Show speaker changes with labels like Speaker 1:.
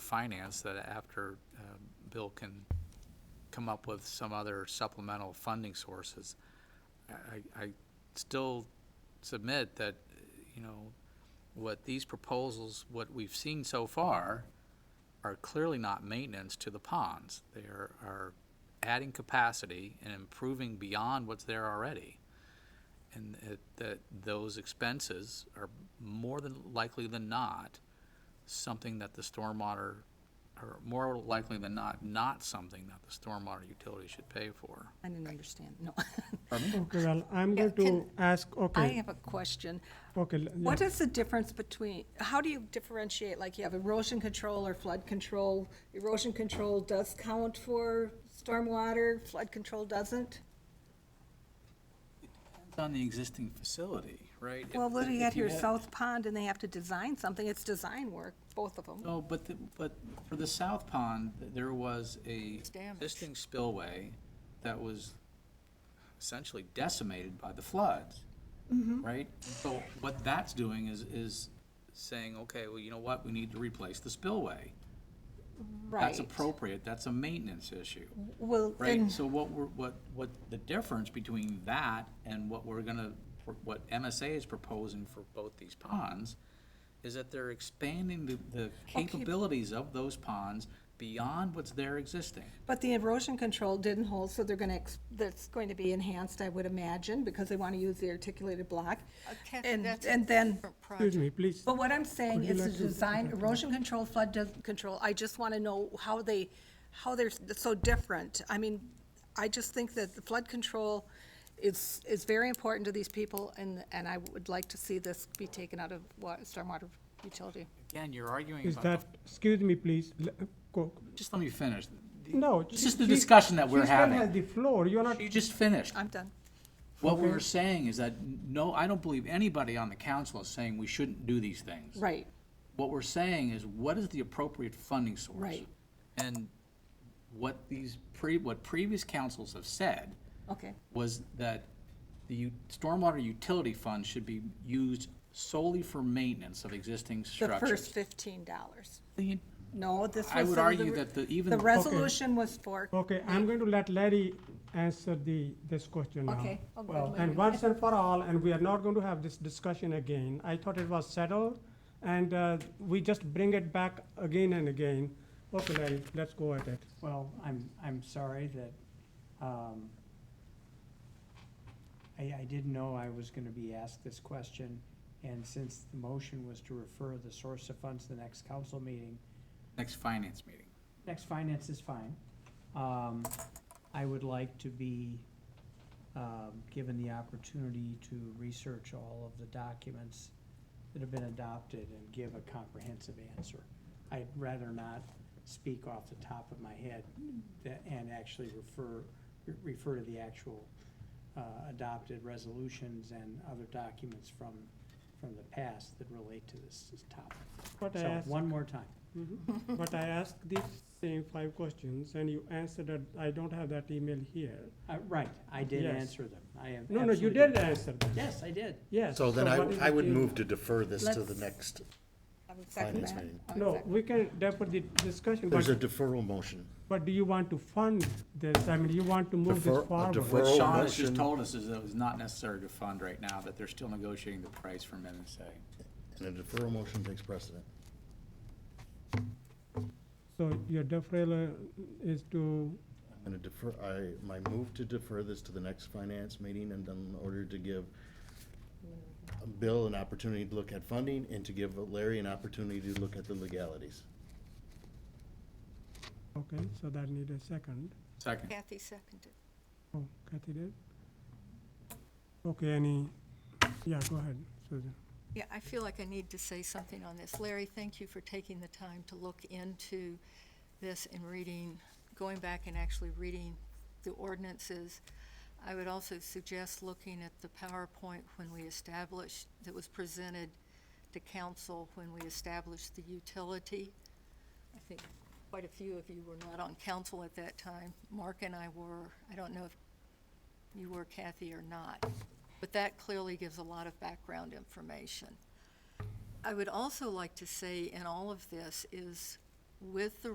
Speaker 1: Finance that after um, Bill can come up with some other supplemental funding sources, I- I, I still submit that, you know, what these proposals, what we've seen so far, are clearly not maintenance to the ponds. They are, are adding capacity and improving beyond what's there already. And it- that those expenses are more than likely than not something that the stormwater, or more likely than not, not something that the stormwater utility should pay for.
Speaker 2: I didn't understand, no.
Speaker 3: Okay, well, I'm
Speaker 2: Yeah,
Speaker 3: going to
Speaker 2: can-
Speaker 3: ask,
Speaker 2: I
Speaker 3: okay,
Speaker 2: have a question.
Speaker 3: okay, l- yeah.
Speaker 2: What is the difference between, how do you differentiate, like you have erosion control or flood control? Erosion control does count for stormwater, flood control doesn't?
Speaker 1: It's on the existing facility, right?
Speaker 2: Well,
Speaker 1: If-
Speaker 2: what do you
Speaker 1: if
Speaker 2: got here,
Speaker 1: had-
Speaker 2: South Pond, and they have to design something, it's design work, both of them.
Speaker 1: No, but, the- but for the south pond, there was a
Speaker 4: damaged.
Speaker 1: existing spillway that was essentially decimated by the floods,
Speaker 2: Mm-hmm.
Speaker 1: right? So what that's doing is, is saying, okay, well, you know what, we need to replace the spillway.
Speaker 2: Right.
Speaker 1: That's appropriate, that's a maintenance issue,
Speaker 2: Well, then,
Speaker 1: right? So what we're, what, what the difference between that and what we're gonna, what MSA is proposing for both these ponds is that they're expanding the, the capabilities of those ponds beyond what's there existing.
Speaker 2: but the erosion control didn't hold, so they're gonna, ex- that's going to be enhanced, I would imagine, because they wanna use the articulated block.
Speaker 4: Uh, Ken,
Speaker 2: And,
Speaker 4: that's a
Speaker 2: and then
Speaker 4: different
Speaker 3: excuse
Speaker 4: project.
Speaker 3: me, please.
Speaker 2: But what I'm saying
Speaker 3: Could you
Speaker 2: is the
Speaker 3: like to-
Speaker 2: design, erosion control, flood does- control, I just want to know how they, how they're so different. I mean, I just think that the flood control is, is very important to these people, and, and I would like to see this be taken out of wa- stormwater utility.
Speaker 1: Again, you're arguing
Speaker 3: Is
Speaker 1: about.
Speaker 3: that, excuse me, please, l- go-
Speaker 1: Just let me finish. The-
Speaker 3: no.
Speaker 1: This
Speaker 3: she-
Speaker 1: is the
Speaker 3: she-
Speaker 1: discussion that we're
Speaker 3: she still
Speaker 1: having.
Speaker 3: has the floor, you're not,
Speaker 1: You just finished.
Speaker 2: I'm done.
Speaker 1: What we were saying is that, no, I don't believe anybody on the council is saying we shouldn't do these things.
Speaker 2: Right.
Speaker 1: What we're saying is, what is the appropriate funding source?
Speaker 2: Right.
Speaker 1: And what these pre, what previous councils have said
Speaker 2: Okay.
Speaker 1: was that the u- stormwater utility fund should be used solely for maintenance of existing
Speaker 2: The
Speaker 1: structures.
Speaker 2: first fifteen dollars.
Speaker 1: The-
Speaker 2: No, this was.
Speaker 1: I would
Speaker 2: the-
Speaker 1: argue that the, even.
Speaker 2: The
Speaker 1: the-
Speaker 2: resolution was for,
Speaker 3: okay, I'm going to let Larry answer the, this question now.
Speaker 2: Okay, I'll go
Speaker 3: Well,
Speaker 2: to
Speaker 3: And
Speaker 2: Larry.
Speaker 3: once and for all, and we are not going to have this discussion again. I thought it was settled, and uh, we just bring it back again and again. Okay, Larry, let's go at it.
Speaker 5: Well, I'm, I'm sorry that, um, I, I didn't know I was gonna be asked this question, and since the motion was to refer the source of funds to the next council meeting,
Speaker 1: Next finance meeting.
Speaker 5: next finance is fine. Um, I would like to be, um, given the opportunity to research all of the documents that have been adopted and give a comprehensive answer. I'd rather not speak off the top of my head tha- and actually refer, refer to the actual, uh, adopted resolutions and other documents from, from the past that relate to this topic.
Speaker 3: But I
Speaker 5: So,
Speaker 3: asked-
Speaker 5: one more time.
Speaker 3: Mhm. But I asked these same five questions, and you answered that I don't have that email here.
Speaker 5: Uh, Right, I did
Speaker 3: Yes.
Speaker 5: answer them. I am.
Speaker 3: No, no, you
Speaker 5: absolutely-
Speaker 3: did answer that,
Speaker 5: Yes, I did.
Speaker 3: yes.
Speaker 6: So then
Speaker 3: what is
Speaker 6: I, I
Speaker 3: the
Speaker 6: would
Speaker 3: change?
Speaker 6: move to defer this to the
Speaker 2: Let's-
Speaker 6: next,
Speaker 2: I would second Oh,
Speaker 6: Finance
Speaker 2: that.
Speaker 6: meeting.
Speaker 2: I would
Speaker 3: No,
Speaker 2: second.
Speaker 3: we can defer the discussion,
Speaker 6: there's a
Speaker 3: but,
Speaker 6: deferral motion.
Speaker 3: but do you want to fund this? I mean, you want to move
Speaker 6: Defer-
Speaker 3: this
Speaker 6: a
Speaker 3: forward?
Speaker 6: defer-
Speaker 1: What
Speaker 6: Earl
Speaker 1: Sean has just
Speaker 6: motion-
Speaker 1: told us is that it's not necessary to fund right now, that they're still negotiating the price from MSA.
Speaker 6: And a deferral motion takes precedent.
Speaker 3: So your deferral uh, is to,
Speaker 6: I'm gonna defer, I, my move to defer this to the next finance meeting and then in order to give Bill an opportunity to look at funding and to give Larry an opportunity to look at the legalities.
Speaker 3: okay, so that need a second.
Speaker 1: Second.
Speaker 4: Kathy seconded.
Speaker 3: Oh, Kathy did? Okay, any, yeah, go ahead, Susan.
Speaker 4: Yeah, I feel like I need to say something on this. Larry, thank you for taking the time to look into this and reading, going back and actually reading the ordinances. I would also suggest looking at the PowerPoint when we established, that was presented to council when we established the utility. I think quite a few of you were not on council at that time. Mark and I were. I don't know if you were Kathy or not. But that clearly gives a lot of background information. I would also like to say in all of this is with the